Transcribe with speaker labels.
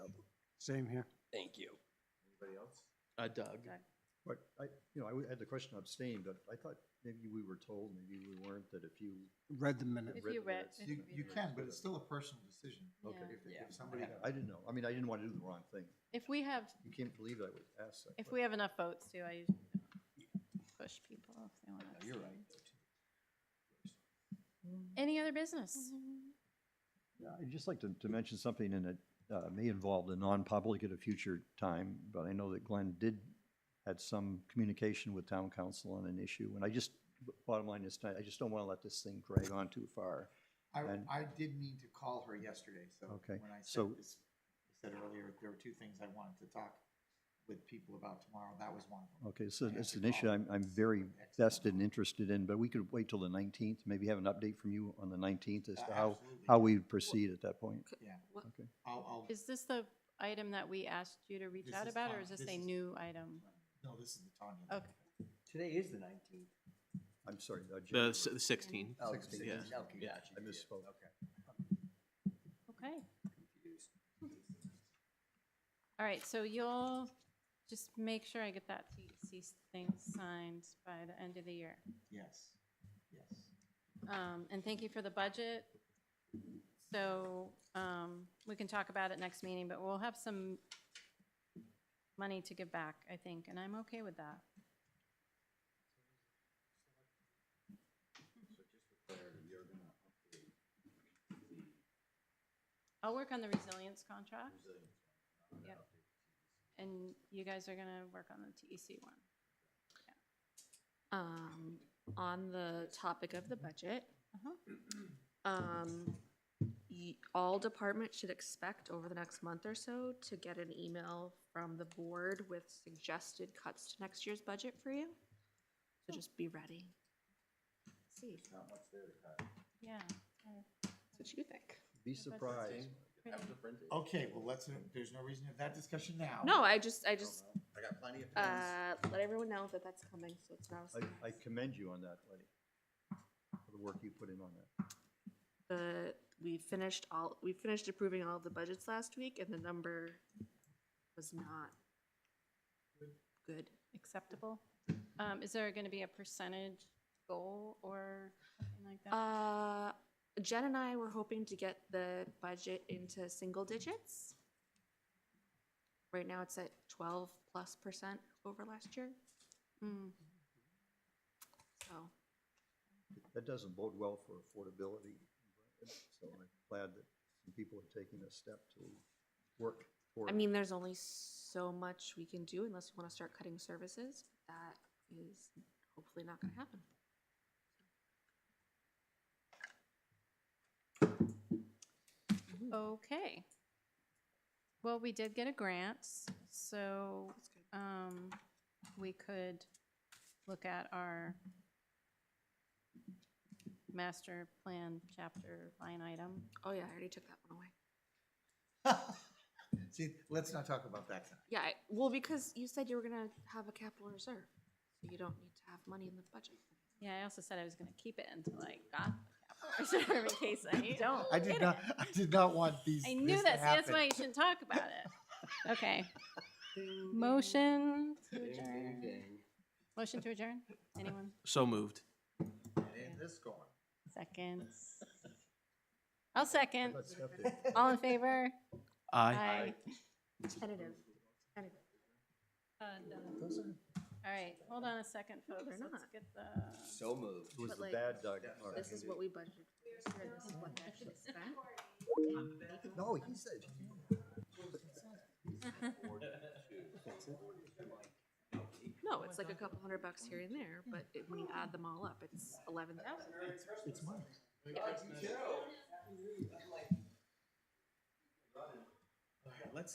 Speaker 1: Same here.
Speaker 2: Thank you.
Speaker 3: Anybody else?
Speaker 2: Uh, Doug.
Speaker 3: But I, you know, I had the question abstain, but I thought maybe we were told, maybe we weren't, that if you.
Speaker 1: Read the minutes.
Speaker 4: If you
Speaker 3: the
Speaker 4: read-
Speaker 3: minutes-
Speaker 4: if
Speaker 5: You,
Speaker 4: It'd be
Speaker 5: you
Speaker 4: the-
Speaker 5: can, but it's still a personal decision.
Speaker 4: Okay.
Speaker 5: If-
Speaker 2: Yeah.
Speaker 5: If somebody,
Speaker 3: I didn't know. I mean, I didn't want to do the wrong thing.
Speaker 4: If we have,
Speaker 3: You can't believe I was asked that.
Speaker 4: if we have enough votes too, I usually don't push people if they want
Speaker 5: No,
Speaker 4: to.
Speaker 5: you're right.
Speaker 4: Any other business?
Speaker 3: Yeah, I'd just like to, to mention something, and it uh, may involve the non-public at a future time, but I know that Glenn did, had some communication with town council on an issue, and I just, bottom line is, I just don't want to let this thing drag on too far.
Speaker 5: I,
Speaker 3: And-
Speaker 5: I did mean to call her yesterday, so.
Speaker 3: Okay,
Speaker 5: When I
Speaker 3: so-
Speaker 5: said this, I said earlier, there were two things I wanted to talk with people about tomorrow. That was one of them.
Speaker 3: Okay, so
Speaker 5: Yeah,
Speaker 3: it's
Speaker 5: to
Speaker 3: an issue
Speaker 5: call.
Speaker 3: I'm, I'm very
Speaker 5: Excellent.
Speaker 3: vested and interested in, but we could wait till the nineteenth, maybe have an update from you on the nineteenth as
Speaker 5: Uh,
Speaker 3: to how,
Speaker 5: absolutely.
Speaker 3: how we proceed at that point.
Speaker 5: Yeah,
Speaker 4: What-
Speaker 3: Okay.
Speaker 5: I'll, I'll.
Speaker 4: Is this the item that we asked you to reach
Speaker 5: This
Speaker 4: out
Speaker 5: is
Speaker 4: about, or
Speaker 5: fine.
Speaker 4: is this
Speaker 5: This
Speaker 4: a
Speaker 5: is-
Speaker 4: new item?
Speaker 5: No, this is the Tanya.
Speaker 4: Okay.
Speaker 6: Today is the nineteenth.
Speaker 3: I'm sorry, uh,
Speaker 2: The
Speaker 3: January.
Speaker 2: s- the 16th.
Speaker 6: Oh,
Speaker 3: 16th.
Speaker 6: yeah.
Speaker 3: Yeah.
Speaker 6: Okay,
Speaker 2: Yeah.
Speaker 6: gotcha.
Speaker 3: I misspoke.
Speaker 6: Okay.
Speaker 4: Okay,
Speaker 6: Confused.
Speaker 4: all right, so you'll just make sure I get that TEC thing signed by the end of the year.
Speaker 5: Yes, yes.
Speaker 4: Um, and thank you for the budget. So, um, we can talk about it next meeting, but we'll have some money to give back, I think, and I'm okay with that. I'll work on the resilience contract. Yep. And you guys are gonna work on the TEC one.
Speaker 7: Um, on the topic of the budget,
Speaker 4: Uh-huh.
Speaker 7: um, y- all departments should expect over the next month or so to get an email from the board with suggested cuts to next year's budget for you. So just be ready. See,
Speaker 4: Yeah.
Speaker 7: what you think.
Speaker 3: Be
Speaker 4: that's-
Speaker 3: surprised.
Speaker 5: Okay, well, let's, there's no reason to have that discussion now.
Speaker 7: No, I just, I just,
Speaker 6: I got plenty of.
Speaker 7: uh, let everyone know that that's coming, so it's not a surprise.
Speaker 3: I, I commend you on that, lady, for the work you put in on that.
Speaker 7: The, we finished all, we finished approving all of the budgets last week and the number was not good.
Speaker 4: acceptable? Um, is there gonna be a percentage goal or something like that?
Speaker 7: Uh, Jen and I were hoping to get the budget into single digits. Right now, it's at twelve plus percent over last year, Hmm.
Speaker 4: Mm,
Speaker 7: so
Speaker 3: That doesn't bode well for affordability, so I'm glad that some people are taking a step to work for
Speaker 7: I
Speaker 3: it.
Speaker 7: mean, there's only so much we can do unless we want to start cutting services. That is hopefully not going to happen.
Speaker 4: Okay. Well, we did get a grant, so, um, we could look at our master plan chapter line item.
Speaker 7: Oh yeah, I already took that one away.
Speaker 5: See, let's not talk about that tonight.
Speaker 7: Yeah, I- well, because you said you were going to have a capital reserve, so you don't need to have money in the budget.
Speaker 4: Yeah, I also said I was gonna keep it until I got the capital reserve in case I don't.
Speaker 5: I did
Speaker 4: get
Speaker 5: not,
Speaker 4: it.
Speaker 5: I did not want these.
Speaker 4: I knew
Speaker 5: this
Speaker 4: this.
Speaker 5: to
Speaker 4: That's
Speaker 5: happen.
Speaker 4: why you shouldn't talk about it. Okay. Motion to
Speaker 6: Ding, ding,
Speaker 4: adjourn.
Speaker 6: ding.
Speaker 4: Motion to adjourn? Anyone?
Speaker 2: So moved.
Speaker 6: It ain't this going.
Speaker 4: Seconds. I'll second.
Speaker 3: Let's step in.
Speaker 4: All in favor?
Speaker 2: Aye.
Speaker 7: Tentative. Tentative.
Speaker 4: Uh, no. All right, hold on a second, folks.
Speaker 7: they're
Speaker 4: Let's
Speaker 7: not.
Speaker 4: get the,
Speaker 6: So moved.
Speaker 3: It was
Speaker 7: But
Speaker 3: the
Speaker 7: like,
Speaker 3: bad dog. part.
Speaker 7: This is what we budgeted. for, and This is what they actually spent.
Speaker 3: No, he said.
Speaker 7: No, it's like a couple hundred bucks here and there, but it- when you add them all up, it's eleven thousand.
Speaker 5: It's mine.
Speaker 6: All right, let's